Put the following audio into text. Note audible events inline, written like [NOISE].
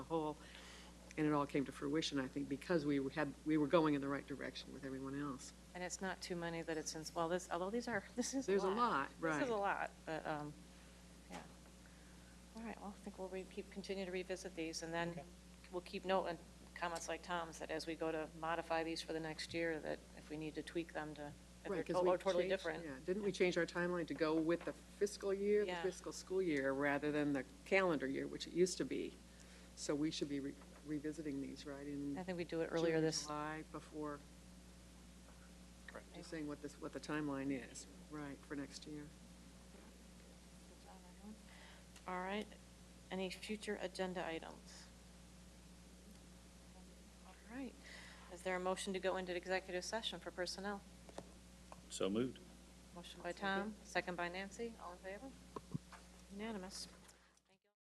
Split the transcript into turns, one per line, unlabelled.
And it all came to fruition, I think, because we had, we were going in the right direction with everyone else.
And it's not too many that it's in, well, this, although these are, [LAUGHS] this is a lot.
There's a lot,
This is a
right.
lot, but, um, yeah. All right, well, I think we'll re- keep, continue to revisit these, and then we'll keep note and comments like Tom's, that as we go to modify these for the next year, that if we need to tweak them to, if they're
Right,
to-
'cause we
or totally
changed-
different.
yeah, Didn't we change our timeline to go with the fiscal year, the
Yeah.
fiscal school year, rather than the calendar year, which it used to be? So we should be re- revisiting these, right, in
I think we do it
June or
earlier this,
July, before, just saying what this, what the timeline is, right, for next year.
all right. Any future agenda items? All right. Is there a motion to go into executive session for personnel?
So moved.
Motion by Tom, second by Nancy, all in favor? Unanimous.